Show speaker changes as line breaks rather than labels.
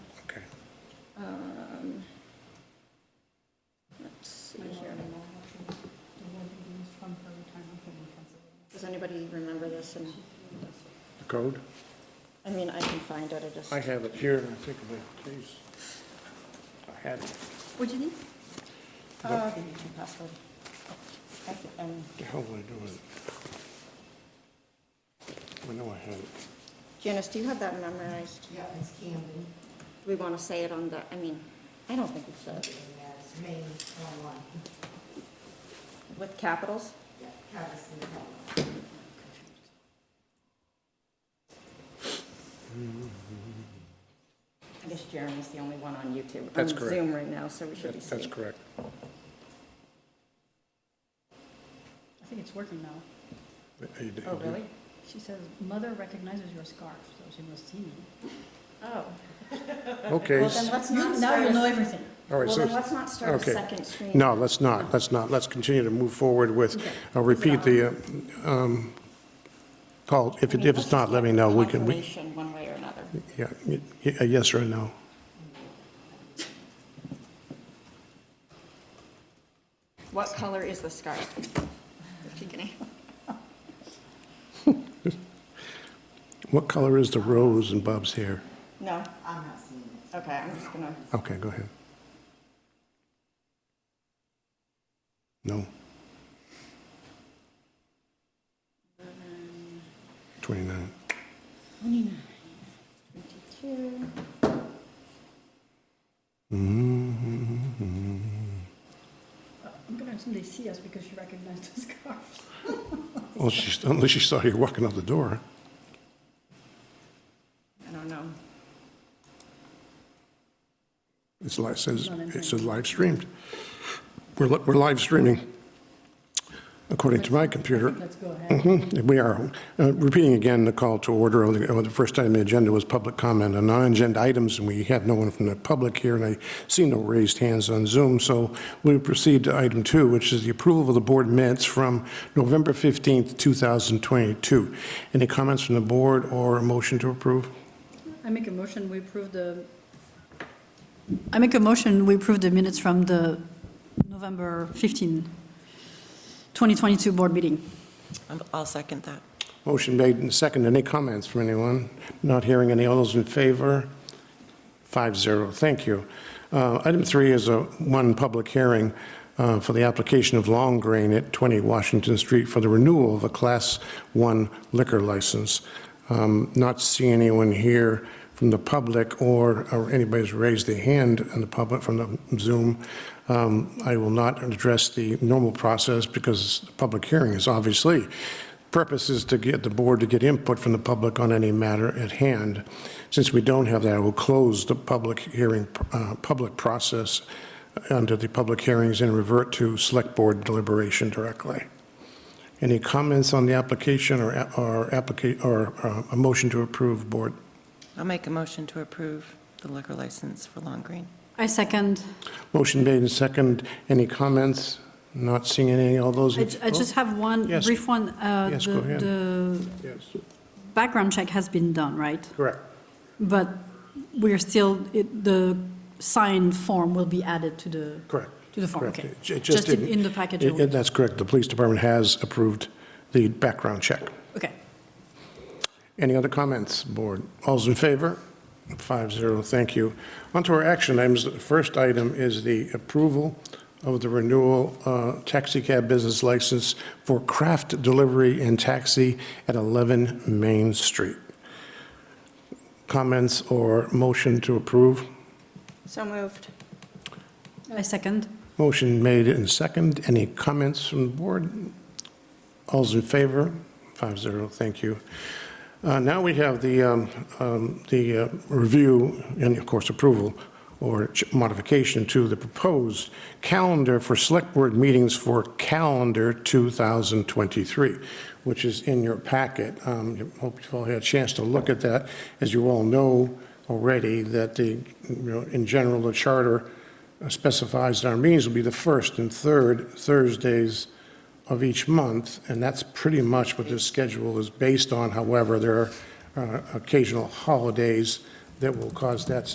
Um, anybody remember this? And,
The code?
I mean, I can find it, I just.
I have it here, I think, but geez. I had it.
What'd you need? Uh, the YouTube password. I can- um,
The hell did I do with it? I know I had it.
Janice, do you have that memorized?
Yeah, it's Camden,
Do we want to say it on the, I mean, I don't think we should.
and that's Maine, one one.
With capitals?
Yeah, Patterson, one one.
I guess Jeremy's the only one on YouTube.
That's
On
correct.
Zoom right now, so we should be
That- That's
safe.
correct.
I think it's working now.
You did-
Oh, really?
She says, mother recognizes your scarf, so she must see me.
Oh.
Okay,
Well,
s-
then let's
You-
not
Now
start
you'll
a-
know everything.
all right,
Well, then
so,
let's not start a
okay.
second screen.
no, let's not, let's not, let's continue to move forward with,
Okay.
I'll repeat the, uh, um, call, if
I
it,
mean,
if
let's
it's not,
just
let me
get
know, we can, we,
Confirmation one way or another.
yeah, y- y- a yes or a no.
What color is the scarf? If you can answer.
What color is the rose in Bob's hair?
No?
I'm not seeing it.
Okay, I'm just gonna,
Okay, go ahead. No. Twenty-nine.
twenty-two.
I'm gonna someday see us because she recognized the scarf.
Unless Oh, she, unless she saw you walking out the door.
I don't know.
It's li it says, it says live streamed. We're, li- we're live streaming, according to my computer.
Let's go ahead.
Mhm, We are. Uh, Repeating again, the call to order, uh, the first item on the agenda was public comment on non-agenda items, and we have no one from the public here, and I see no raised hands on Zoom, so we proceed to item two, which is the approval of the board minutes from November 15th, 2022. Any comments from the board or a motion to approve?
I make a motion, we approve the, I make a motion, we approve the minutes from the November 15, 2022 board meeting.
I'm- I'll second that.
Motion made and seconded. Any comments from anyone? Not hearing any. All those in favor? Five zero. Thank you. Uh, Item three is a one public hearing uh, for the application of Long Grain at 20 Washington Street for the renewal of a Class 1 liquor license. Um, Not seeing anyone here from the public or or anybody's raised their hand in the public from the Zoom. Um, I will not address the normal process because the public hearing is obviously purpose is to get the board to get input from the public on any matter at hand. Since we don't have that, I will close the public hearing, uh, public process uh, under the public hearings and revert to select board deliberation directly. Any comments on the application or, a- or applica, or uh, a motion to approve board?
I'll make a motion to approve the liquor license for Long Green.
I second.
Motion made and second. Any comments? Not seeing any. All those
I
in?
ju- I just have one
Yes.
brief one. Uh,
Yes, go
the-
ahead.
The
Oh, yes.
background check has been done, right?
Correct.
But we're still, it- the signed form will be added to the.
Correct.
To the form,
Correct.
okay.
It ju- it
Just in
didn't-
in the package.
it- it- That's correct. The police department has approved the background check.
Okay.
Any other comments, board? All's in favor? Five zero, thank you. On to our action items. The first item is the approval of the renewal uh, taxi cab business license for craft delivery and taxi at 11 Main Street. Comments or motion to approve?
So moved.
I second.
Motion made and second. Any comments from the board? All's in favor? Five zero, thank you. Uh, Now we have the, um, um, the uh, review and, of course, approval or ch- modification to the proposed calendar for select board meetings for calendar 2023, which is in your packet. Um, I Hope you've all had a chance to look at that. As you all know already, that the, you know, in general, the charter specifies that our meetings will be the first and third Thursdays of each month, and that's pretty much what this schedule is based on. However, there are uh, occasional holidays that will cause that